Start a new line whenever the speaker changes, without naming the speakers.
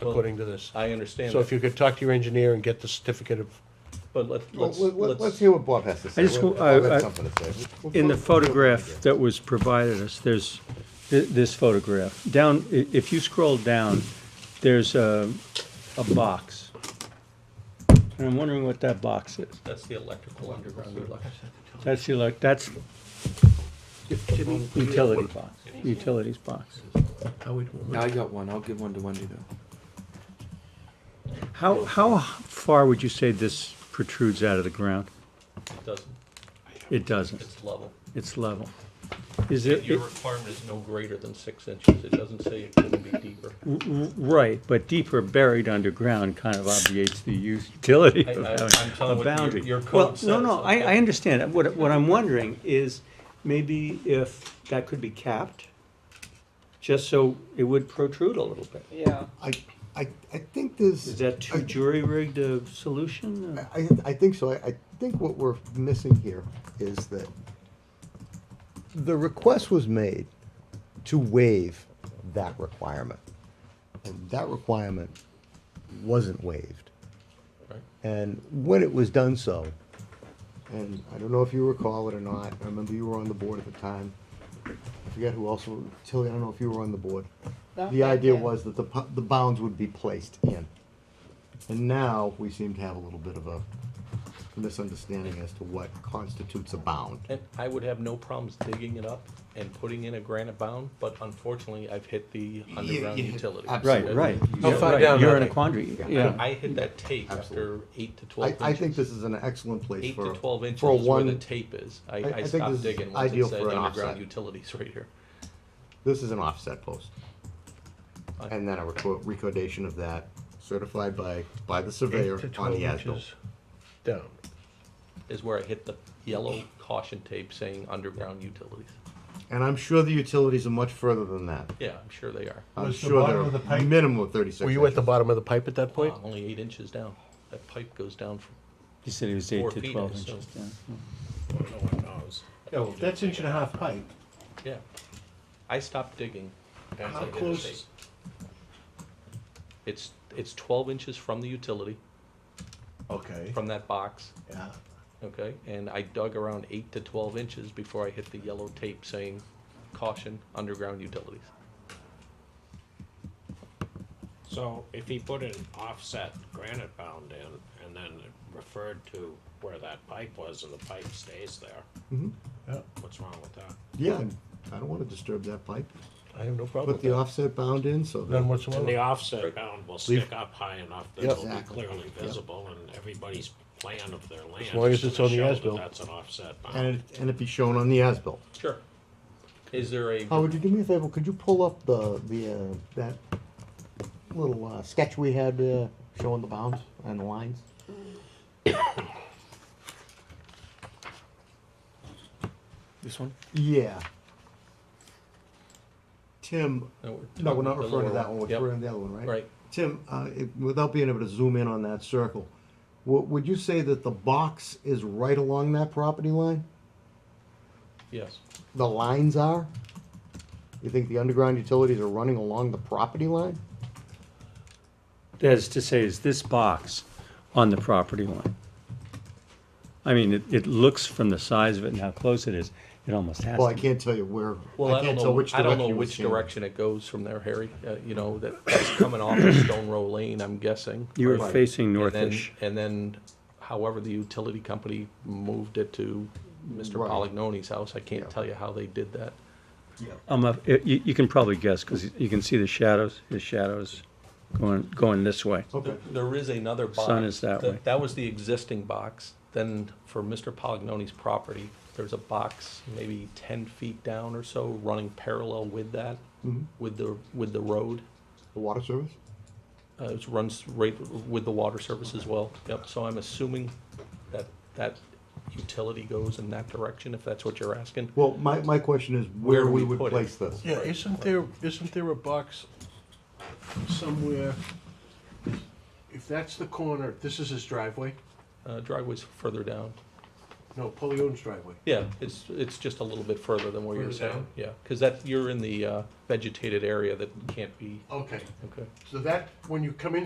according to this.
I understand
So if
that,
you could talk to your engineer and get the certificate of,
but let-
Well,
let's,
let- let- Let's
let's,
hear what Bob has to say.
I just
Bob
go- I-
has
I-
something to say. We'll- we'll-
In the
we'll-
photograph that was provided us, there's thi- this photograph. Down, i- if you scroll down, there's a, a box. And I'm wondering what that box is.
that's the electrical underground.
That's the, elec- that's
Jimmy,
utility box, utilities box.
how we doing?
I got one. I'll give one to Wendy though.
How, how far would you say this protrudes out of the ground?
It doesn't,
It doesn't.
it's level.
It's level. Is it,
Your
it-
requirement is no greater than six inches. It doesn't say it couldn't be deeper.
right, but deeper buried underground kind of obviates the utility
I-
of
I- I'm
having
telling
a
what your-
boundary.
your code
Well, no, no,
says,
I,
okay.
I understand. What, what I'm wondering is maybe if that could be capped, just so it would protrude a little bit.
Yeah.
I, I, I think
Is
there's,
that too jury-rigged a solution? or-
I, I think so. I, I think what we're missing here is that the request was made to waive that requirement. And that requirement wasn't waived.
Right.
And when it was done so, and I don't know if you recall it or not, I remember you were on the board at the time. I forget who else, were- Tilly, I don't know if you were on the board.
No,
The
I
idea
did.
was that the, pu- the bounds would be placed in. And now we seem to have a little bit of a misunderstanding as to what constitutes a bound.
And I would have no problems digging it up and putting in a granite bound, but unfortunately, I've hit the underground
yeah,
utility.
absolutely.
Right, right.
How
Yeah,
far
right.
down
You're
are
in a
they?
quandary,
I-
yeah.
I hit that tape after
Absolutely.
eight to twelve
I,
inches.
I think this is an excellent place
Eight
for.
to twelve inches
for a
is where the
one-
tape is. I,
I
I
think this
stopped
is
digging once it
ideal
said
for an
underground
offset.
utilities right here.
This is an offset post.
I-
And then a reco- recordation of that certified by, by the surveyor
Eight to
on
12
the as-built.
inches down.
Is where I hit the yellow caution tape saying underground utilities.
And I'm sure the utilities are much further than that.
Yeah, I'm sure they are.
I'm
Was the
sure
bottom of the
they're
pipe-
minimum of thirty-six
were you at the
inches.
bottom of the pipe at that
Wow,
point?
I'm Uh, only eight inches down. That pipe goes down from
He said it was
four
eight to
feet,
twelve
so-
inches down.
No one knows. Yeah, well, that's inch and a half pipe.
Yeah. I stopped digging. once I
How
did the tape.
close?
It's, it's twelve inches from the utility,
Okay,
from that box,
yeah.
okay? And I dug around eight to twelve inches before I hit the yellow tape saying caution, underground utilities.
So if he put an offset granite bound in and then referred to where that pipe was and the pipe stays there,
Mm-hmm.
Yeah.
what's wrong with that?
Yeah, and I don't wanna disturb that pipe.
I have no problem
Put
with
the
that.
offset bound in so that.
None
And the
whatsoever.
offset bound will stick up high enough that it'll be
Exactly.
clearly visible and everybody's plan of their land.
long
is
as it's
gonna
on the
show that
as-built.
That's an offset bound.
And it, and it be shown on the as-built.
Sure. Is there a,
Howard, Oh, would you do me a favor? Could you pull up the, the, uh, that little uh, sketch we had uh, showing the bounds and the lines?
This one?
Yeah. Tim,
No, we're
no, we're not
talking the
referring
lower
to that
one.
one, we're
Yep.
referring to the other one, right?
Right.
Tim, uh, it- without being able to zoom in on that circle, would, would you say that the box is right along that property line?
yes,
The lines are? You think the underground utilities are running along the property line?
That is to say, is this box on the property line? I mean, it, it looks from the size of it and how close it is, it almost has
Well, I
to be.
can't tell you where,
well, I
I
don't
can't tell
know,
which
I don't
direction.
know
it was
which
standing.
direction it goes from there, Harry, uh, you know, that, that's coming off of Stone Row Lane, I'm guessing.
You were
right?
facing
And then-
northish.
And then, however, the utility company moved it to Mr.
Right.
Polignoni's house. I
Yeah.
can't tell you how they did that.
I'm up, it- you, you can probably guess, because you can see the shadows, the shadows going, going this way.
Okay.
There is another box.
Sun is that way.
That was the existing box. Then for Mr. Polignoni's property, there's a box maybe ten feet down or so, running parallel with that,
Mm-hmm.
with the, with the road.
The water service?
Uh, it runs right with the water service as well. Yep, so I'm assuming that that utility goes in that direction, if that's what you're asking.
Well, my, my question is where we would
put it.
place this.
Yeah, isn't there, isn't there a box somewhere? If that's the corner, this is his driveway,
Uh, driveway's further down.
No, Polly owns driveway.
Yeah, it's, it's just a little bit further than where you're
Further
saying,
down?
yeah, because that, you're in the uh, vegetated area that can't be,
Okay,
okay.
so that, when you come in